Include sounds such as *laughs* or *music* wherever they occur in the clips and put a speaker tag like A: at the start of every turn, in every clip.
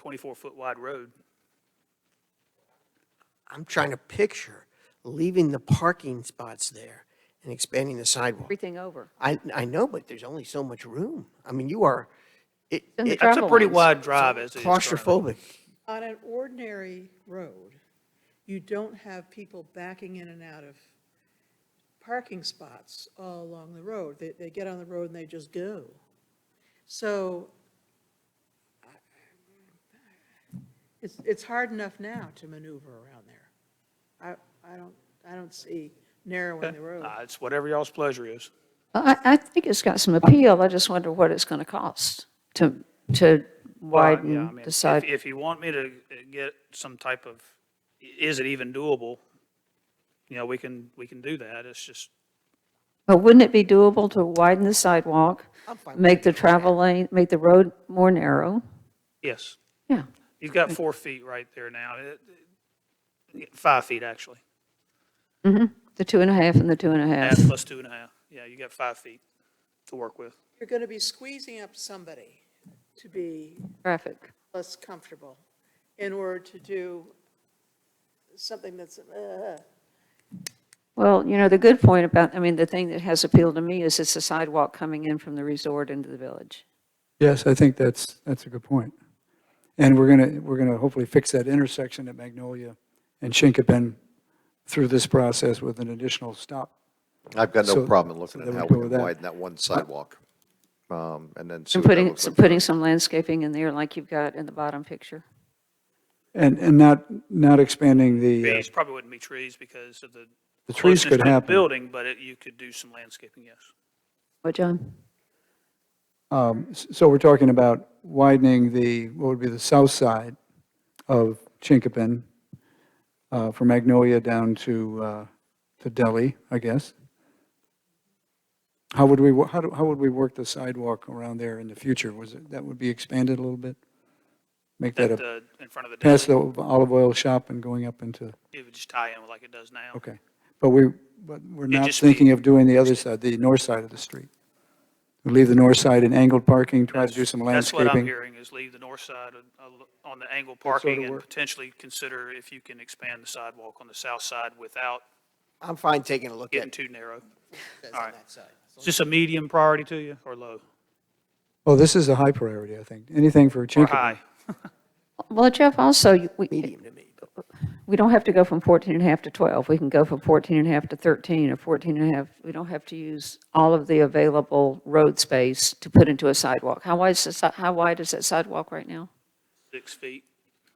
A: 24-foot wide road.
B: I'm trying to picture leaving the parking spots there and expanding the sidewalk.
C: everything over.
B: I, I know, but there's only so much room. I mean, you are, it,
C: And the
B: it-
C: traffic
A: That's a pretty
C: Travel lanes.
A: wide drive as it is. currently.
B: claustrophobic.
D: On an ordinary road, you don't have people backing in and out of parking spots all along the road. They, they get on the road and they just go. So I- it's, it's hard enough now to maneuver around there. I, I don't, I don't see narrowing the road.
A: Uh, It's whatever y'all's pleasure is.
C: I, I think it's got some appeal, I just wonder what it's going to cost to, to
A: Well, yeah, I mean,
C: widen the
A: if-
C: side.
A: If you want me to uh, get some type of, i- is it even doable? You know, we can, we can do that. It's just,
C: But wouldn't it be doable to widen the sidewalk,
B: I'm fine with
C: make the travel lane, make the road more narrow?
A: yes.
C: Yeah,
A: You've got four feet right there now, It- it- five feet actually,
C: the two and a half and the two and a half.
A: half plus two and a half. Yeah, you got five feet to work with.
D: You're going to be squeezing up somebody to be
C: Traffic.
D: less comfortable in order to do something that's, uh,
C: Well, you know, the good point about, I mean, the thing that has appealed to me is it's a sidewalk coming in from the resort into the village.
E: Yes, I think that's, that's a good point. And we're going to, we're going to hopefully fix that intersection at Magnolia and Chinkopin through this process with an additional stop.
F: I've got
E: So-
F: no problem
E: so
F: looking at
E: then we
F: how
E: go
F: we
E: with
F: can
E: that.
F: widen that one sidewalk, um, and then see
C: And
F: what that
C: putting,
F: looks like.
C: putting some landscaping in there like you've got in the bottom picture.
E: And, and not, not expanding the, uh,
A: Trees probably wouldn't be trees because of the.
E: The trees
A: closeness
E: could
A: to the
E: happen.
A: Building, but it- you could do some landscaping, yes.
C: What, John?
E: Um, s- so we're talking about widening the, what would be the south side of Chinkopin uh, from Magnolia down to, uh, to Delhi, I guess. How would we, wo- how do, how would we work the sidewalk around there in the future? Was it, that would be expanded a little bit? Make that
A: At
E: a
A: the, uh, in front of the
E: past
A: deli,
E: the olive oil shop and going up into,
A: it would just tie in like it does now.
E: okay. But we, but we're not
A: just be-
E: thinking of doing the other side, the north side of the street. We Leave the north side in angled parking, try to do some
A: That's what I'm
E: landscaping.
A: hearing, is leave the north side of- of- on the angle
E: sort of
A: parking and
E: work.
A: potentially consider if you can expand the sidewalk on the south side without
B: I'm fine taking a look
A: getting
B: at
A: too
B: *laughs*
A: narrow.
B: this
A: all
B: on
A: right.
B: that side.
A: Is this a medium priority to you or low
E: Oh, this is a high priority, I think. Anything for
A: or
E: Chincopen.
A: high?
C: Well, Jeff, also, you- we,
B: Medium to me, but
C: we don't have to go from 14 and a half to 12. We can go from 14 and a half to 13 or 14 and a half. We don't have to use all of the available road space to put into a sidewalk. How wide is, the si- how wide is that sidewalk right now?
A: Six feet,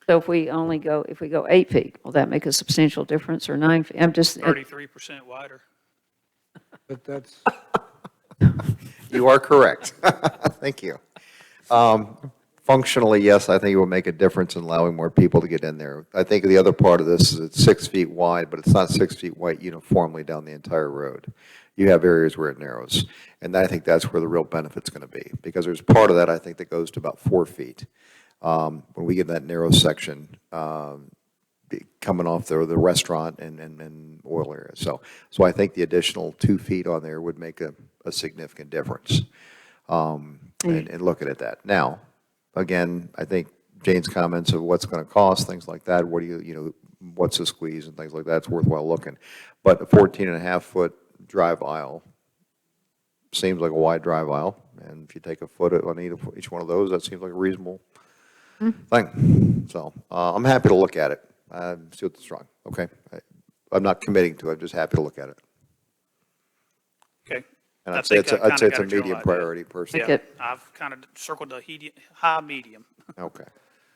C: So if we only go, if we go eight feet, will that make a substantial difference or nine? feet? I'm just,
A: thirty-three percent wider.
E: But that's,
F: You are correct. *laughs* Thank you. Um, Functionally, yes, I think it will make a difference in allowing more people to get in there. I think the other part of this is it's six feet wide, but it's not six feet wide uniformly down the entire road. You have areas where it narrows, and I think that's where the real benefit's going to be, because there's part of that, I think, that goes to about four feet. Um, When we get that narrow section, um, be- coming off the, the restaurant and, and, and oil area. So, so I think the additional two feet on there would make a, a significant difference. Um, and, and looking at that. Now, again, I think Jane's comments of what's gonna cost, things like that, what do you, you know, what's the squeeze and things like that, it's worthwhile looking. But a fourteen and a half foot drive aisle seems like a wide drive aisle. And if you take a foot on either, each one of those, that seems like a reasonable thing. So uh, I'm happy to look at it, uh, see what's wrong, okay? I- I'm not committing to it, I'm just happy to look at it.
A: Okay.
F: And
A: I
F: I'd say
A: think
F: it's,
A: I
F: a- I'd say
A: kinda got
F: it's
A: a
F: a
A: general
F: medium
A: idea.
F: priority personally.
A: Yeah,
C: Okay.
A: I've kind of circled the hedi- high, medium,
F: Okay.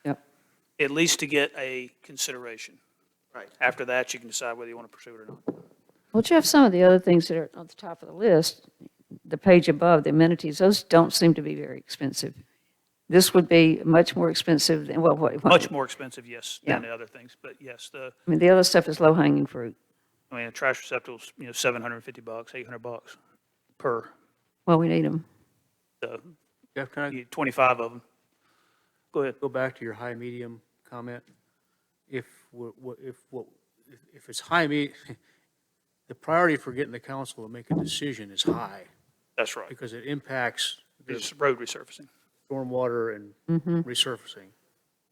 C: yep.
A: at least to get a consideration.
B: Right.
A: After that, you can decide whether you want to pursue it or not.
C: Well, Jeff, some of the other things that are on the top of the list, the page above, the amenities, those don't seem to be very expensive. This would be much more expensive than, well, what? what-
A: Much more expensive, yes, than
C: Yeah.
A: the other things, but yes, the,
C: I mean, the other stuff is low-hanging fruit.
A: I mean, a trash receptacle's, you know, seven hundred and fifty bucks, eight hundred bucks per,
C: Well, we need them.
A: so,
G: Jeff, can I
A: you- twenty-five of them. Go ahead.
G: go back to your high, medium comment? If, we're- what- if, what- if- if it's high, me, *laughs* the priority for getting the council to make a decision is high,
A: That's right.
G: because it impacts the
A: It's road resurfacing.
G: stormwater and resurfacing.